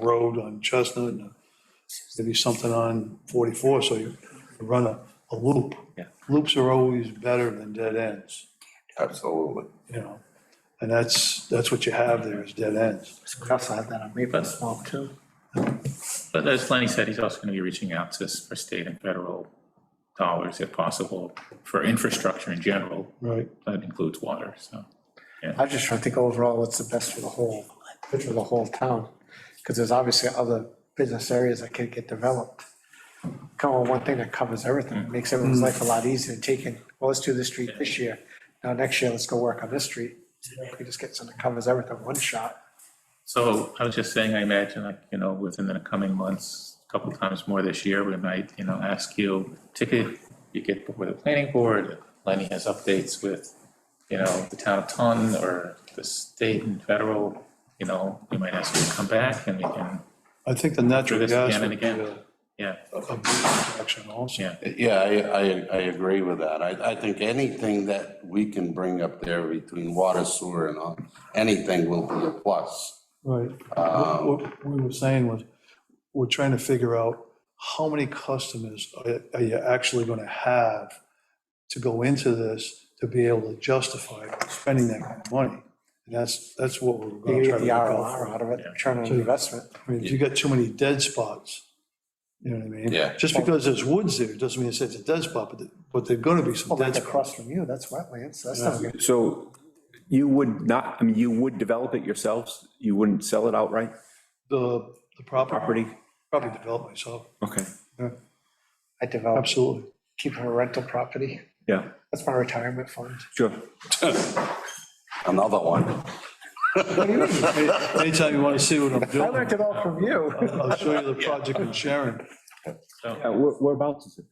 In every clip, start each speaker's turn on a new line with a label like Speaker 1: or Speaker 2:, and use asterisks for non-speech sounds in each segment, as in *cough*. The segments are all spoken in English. Speaker 1: road on Chestnut, and maybe something on 44, so you run a, a loop.
Speaker 2: Yeah.
Speaker 1: Loops are always better than dead ends,
Speaker 3: Absolutely.
Speaker 1: you know? And that's, that's what you have there is dead ends.
Speaker 4: We also have that on Maple Swamp too.
Speaker 2: But as Lenny said, he's also going to be reaching out to us for state and federal dollars if possible for infrastructure in general.
Speaker 1: Right.
Speaker 2: That includes water, so.
Speaker 4: I just trying to think overall what's the best for the whole, for the whole town. Because there's obviously other business areas that could get developed. Come on, one thing that covers
Speaker 1: Mm.
Speaker 4: everything, makes everyone's life a lot easier, taking, well, let's do this street this year. Now, next year, let's go work on this street. We just get something that covers everything, one shot.
Speaker 2: So I was just saying, I imagine, like, you know, within the coming months, a couple times more this year, we might, you know, ask you, particularly if you get before the planning board, Lenny has updates with, you know, the town of Ton or the state and federal, you know, we might ask you to come back and we can,
Speaker 1: I think the
Speaker 2: Do
Speaker 1: natural
Speaker 2: this
Speaker 1: gas
Speaker 2: again
Speaker 1: would
Speaker 2: and
Speaker 1: be
Speaker 2: again.
Speaker 1: a
Speaker 2: yeah,
Speaker 1: a big attraction also.
Speaker 2: Yeah.
Speaker 3: Yeah, I, I, I agree with that. I, I think anything that we can bring up there between water, sewer and all, anything will be a plus.
Speaker 1: Right.
Speaker 4: Um,
Speaker 1: What what we were saying was, we're trying to figure out how many customers are are you actually going to have to go into this to be able to justify spending that kind of money? And that's, that's what we're
Speaker 4: You
Speaker 1: going
Speaker 4: can
Speaker 1: to try
Speaker 4: get
Speaker 1: to
Speaker 4: the
Speaker 1: look
Speaker 4: ROR
Speaker 1: out
Speaker 4: out of it, return on investment.
Speaker 1: for. I mean, if you got too many dead spots, you know what I mean?
Speaker 3: Yeah.
Speaker 1: Just because there's woods there doesn't mean it's a dead spot, but, the- but there're going to be some
Speaker 4: Well,
Speaker 1: dead
Speaker 4: Oh, that's
Speaker 1: spots.
Speaker 4: across from you, that's wetlands, that's not,
Speaker 5: So you would not, I mean, you would develop it yourselves? You wouldn't sell it outright,
Speaker 1: The, the property,
Speaker 5: property?
Speaker 1: probably develop myself,
Speaker 5: Okay,
Speaker 4: I develop,
Speaker 1: absolutely.
Speaker 4: keep it a rental property.
Speaker 5: yeah,
Speaker 4: That's my
Speaker 1: *laughs*
Speaker 4: retirement fund.
Speaker 5: sure.
Speaker 3: Another one.
Speaker 1: Any- Anytime you want to see what I'm
Speaker 4: I
Speaker 1: doing,
Speaker 4: learned it all from *laughs* you.
Speaker 1: I'll show you the project in Sharon.
Speaker 5: Uh, where- Whereabouts is it?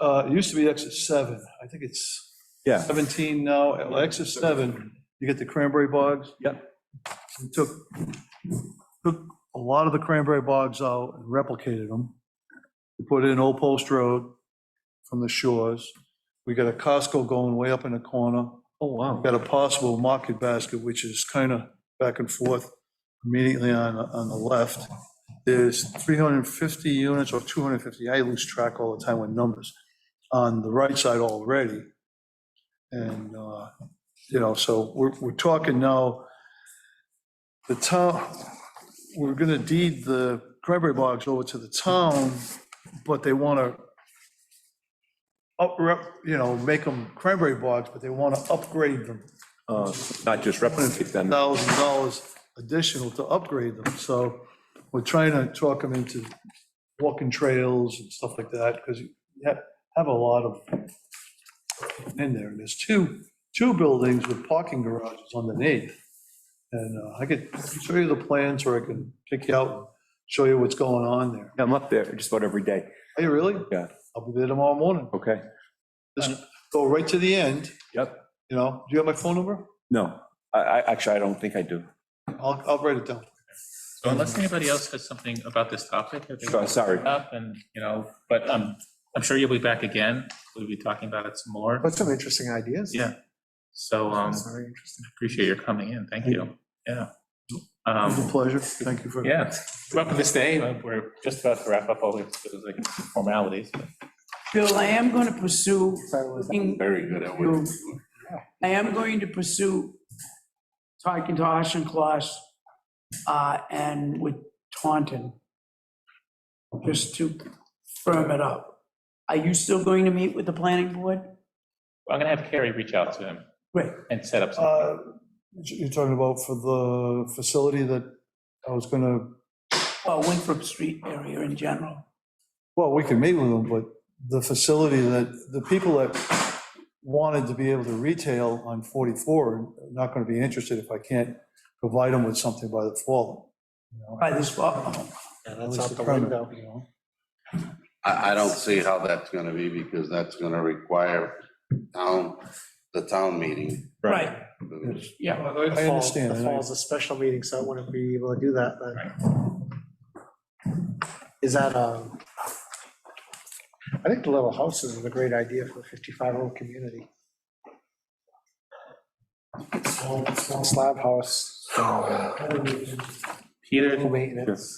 Speaker 1: Uh, it used to be exit seven, I think it's
Speaker 5: Yeah,
Speaker 1: 17 now, Well, exit seven, you get the cranberry bogs.
Speaker 5: Yep.
Speaker 1: We Took, took a lot of the cranberry bogs out and replicated them. We Put in Old Post Road from the shores. We got a Costco going way up in the corner.
Speaker 5: oh, wow.
Speaker 1: Got a possible market basket, which is kind of back and forth immediately on, on the left. There's 350 units or 250, I lose track all the time with numbers, on the right side already. And, uh, you know, so we're, we're talking now, the town, we're going to deed the cranberry bogs over to the town, but they want to up, you know, make them cranberry bogs, but they want to upgrade them
Speaker 5: Uh, Not just replicate them.
Speaker 1: thousand dollars additional to upgrade them, so we're trying to talk them into walking trails and stuff like that, because you ha- have a lot of in there, and there's two, two buildings with parking garages underneath. And uh, I could show you the plans, or I can pick you out and show you what's going on there.
Speaker 5: I'm up there just about every day.
Speaker 1: Are you really?
Speaker 5: Yeah.
Speaker 1: I'll be there tomorrow morning,
Speaker 5: Okay,
Speaker 1: go right to the end,
Speaker 5: yep.
Speaker 1: you know, do you have my phone number?
Speaker 5: No, I, I, actually, I don't think I do.
Speaker 1: I'll, I'll write it down.
Speaker 2: So unless anybody else has something about this topic. if they
Speaker 5: Sure, sorry.
Speaker 2: Up and, you know, but I'm, I'm sure you'll be back again. We'll be talking about it some more.
Speaker 4: But some interesting ideas.
Speaker 2: Yeah. So, um,
Speaker 4: It's very interesting.
Speaker 2: appreciate your coming in. Thank you. Yeah.
Speaker 1: It was a
Speaker 2: Um,
Speaker 1: pleasure, thank you for.
Speaker 2: yeah, welcome to stay. We're just about to wrap up all the like, formalities. but-
Speaker 6: Bill, I am going to pursue,
Speaker 4: Sorry, was that-
Speaker 6: looking-
Speaker 3: Very good at what you do.
Speaker 6: I am going to pursue talking to Ashen Kloss uh, and with Taunton, just to firm it up. Are you still going to meet with the planning board?
Speaker 2: I'm gonna have Carrie reach out to him
Speaker 6: Great.
Speaker 2: and set up something.
Speaker 1: Uh, You're talking about for the facility that I was gonna,
Speaker 6: Well, Winthrop Street area in general.
Speaker 1: well, we can meet with them, but the facility that, the people that wanted to be able to retail on 44 are not gonna be interested if I can't provide them with something by the fall. you know?
Speaker 6: By this, fall.
Speaker 4: Yeah,
Speaker 1: At
Speaker 4: that's
Speaker 1: least
Speaker 4: out the
Speaker 1: permit,
Speaker 4: window.
Speaker 1: you know?
Speaker 3: I, I don't see how that's gonna be because that's gonna require town, the town meeting.
Speaker 6: right, yeah.
Speaker 1: I understand,
Speaker 4: The
Speaker 1: and I-
Speaker 4: fall's a special meeting, so I wouldn't be able to do that, but. Is that, um, I think the little houses is a great idea for a 55-year-old community. Small small slab house.
Speaker 2: Peter,
Speaker 4: Full Oh, maintenance.